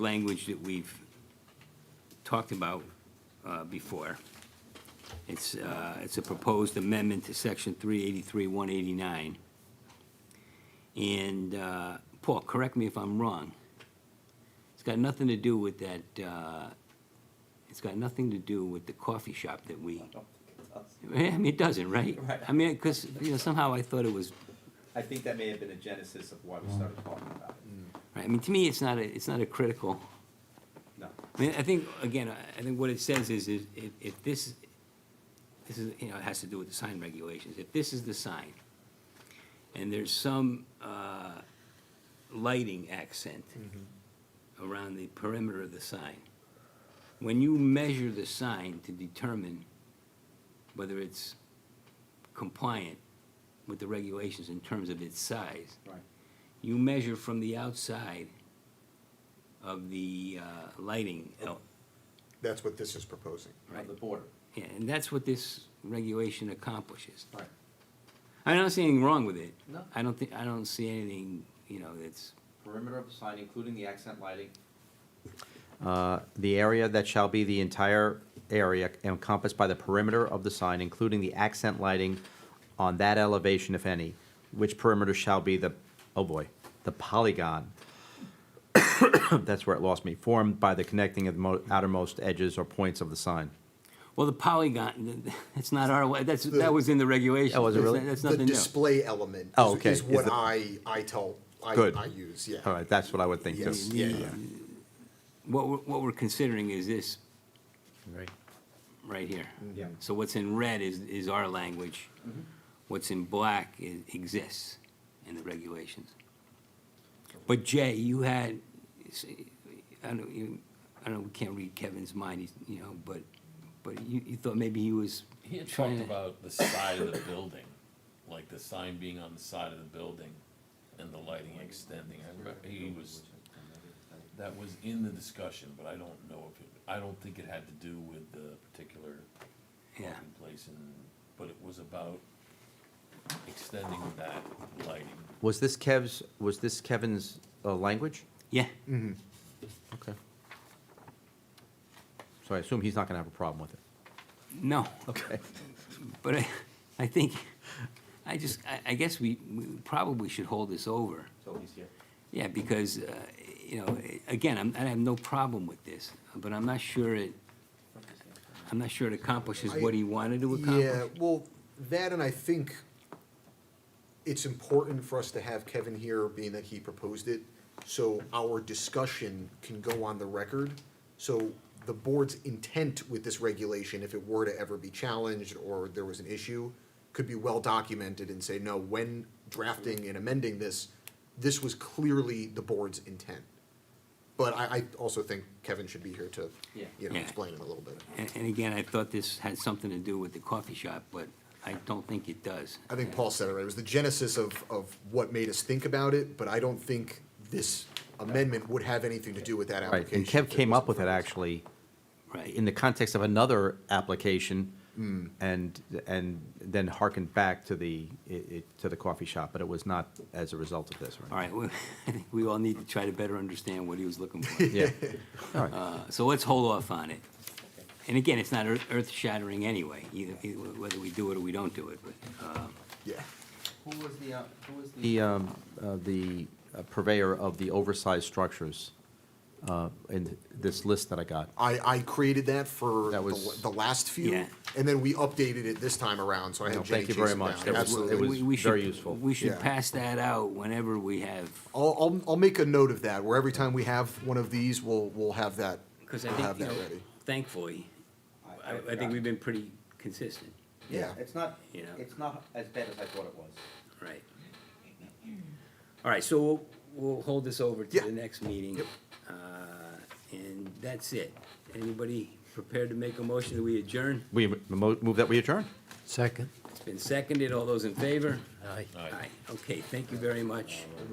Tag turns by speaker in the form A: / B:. A: language that we've talked about uh, before. It's, uh, it's a proposed amendment to section 383, 189. And, uh, Paul, correct me if I'm wrong. It's got nothing to do with that, uh, it's got nothing to do with the coffee shop that we,
B: don't think it does.
A: I mean, it doesn't, right?
B: Right.
A: I mean, because, you know, somehow I thought it was
B: I think that may have been the genesis of why we started talking about
C: Mm.
B: it.
A: Right, I mean, to me, it's not a, it's not a critical,
B: No,
A: I mean, I think, again, I I think what it says is, is if, if this, this is, you know, it has to do with the sign regulations, if this is the sign, and there's some, uh, lighting accent around the perimeter of the sign, when you measure the sign to determine whether it's compliant with the regulations in terms of its size,
B: right,
A: you measure from the outside of the uh, lighting, el-
D: That's what this is proposing.
B: on the border,
A: yeah, and that's what this regulation accomplishes.
B: right.
A: I don't see anything wrong with it.
B: No.
A: I don't think, I don't see anything, you know, that's,
B: Perimeter of the sign, including the accent lighting,
C: Uh, The area that shall be the entire area encompassed by the perimeter of the sign, including the accent lighting on that elevation, if any, which perimeter shall be the, oh boy, the polygon. That's where it lost me, formed by the connecting of the mo- outermost edges or points of the sign.
A: well, the polygon, that's not our, way. that's, that was in the regulations.
C: Oh, was it
A: That's-
C: really?
A: That's
D: The
A: nothing new.
D: display element
C: Oh,
D: is-
C: okay.
D: is
C: Is
D: what
C: the-
D: I, I tell, I,
C: Good.
D: I use, yeah.
C: All right, that's what I would think too.
D: Yes, yeah, yeah.
A: What we're, what we're considering is this
C: Right.
A: right here.
E: Mm-hmm.
B: Yeah.
A: So what's in red is, is our language. What's in black is, exists in the regulations. But Jay, you had, I don't, you, I don't, we can't read Kevin's mind, he's, you know, but, but you, you thought maybe he was
E: He had
A: trying
E: talked
A: to.
E: about the side of the building, like the sign being on the side of the building and the lighting extending. I remember, he was, that was in the discussion, but I don't know if it, I don't think it had to do with the particular
A: Yeah.
E: parking place and, but it was about extending that lighting.
C: Was this Kev's, was this Kevin's uh, language?
A: Yeah,
C: Okay. So I assume he's not going to have a problem with it.
A: no,
C: Okay.
A: but I, I think, I just, I, I guess we, we probably should hold this over.
B: so he's here.
A: Yeah, because, uh, you know, again, I'm, I have no problem with this, but I'm not sure it, I'm not sure it accomplishes what he wanted to
D: Yeah,
A: accomplish.
D: well, that and I think it's important for us to have Kevin here, being that he proposed it, so our discussion can go on the record. So the board's intent with this regulation, if it were to ever be challenged or there was an issue, could be well documented and say, no, when drafting and amending this, this was clearly the board's intent. But I, I also think Kevin should be here to,
B: Yeah.
D: you know,
A: Yeah.
D: explain it a little bit.
A: And, and again, I thought this had something to do with the coffee shop, but I don't think it does.
D: I think Paul said it right. It was the genesis of, of what made us think about it, but I don't think this amendment would have anything to do with that
C: Right,
D: application.
C: and Kev came up with it actually in
A: Right,
C: the context of another application and, and then hearkened back to the, it- it- to the coffee shop, but it was not as a result of this,
A: all
C: right?
A: right, well, I think we all need to try to better understand what he was looking for.
C: Yeah, all right.
A: Uh, So let's hold off on it. And again, it's not earth- earth-shattering anyway, either, either whether we do it or we don't do it, but, uh,
D: Yeah,
B: Who was the, uh, who was the?
C: The, um, uh, the purveyor of the oversized structures uh, in this list that I got.
D: I, I created that for
C: That
D: the,
C: was-
D: the last few,
A: Yeah.
D: and then we updated it this time around, so I
C: No,
D: had Jenny
C: thank you
D: chase
C: very
D: it
C: much.
D: down.
C: That was- it was-
D: Absolutely.
A: we- we should-
C: very useful.
A: We should
D: Yeah.
A: pass that out whenever we have
D: I'll, I'll, I'll make a note of that, where every time we have one of these, we'll, we'll have that,
A: Because I
D: we'll have
A: think, you
D: that
A: know,
D: ready.
A: thankfully, I, I
B: forgot.
A: think we've been pretty consistent,
D: Yeah.
B: It's not,
A: You know.
B: it's not as bad as I thought it was.
A: right? All right, so we'll, we'll hold this over to
D: Yeah.
A: the next meeting. Uh, And that's it. Anybody prepared to make a motion that we adjourn?
C: We mo- move that we adjourn?
F: Second.
A: It's been seconded. All those in favor?
F: Aye.
E: Aye.
A: Okay, thank you very much.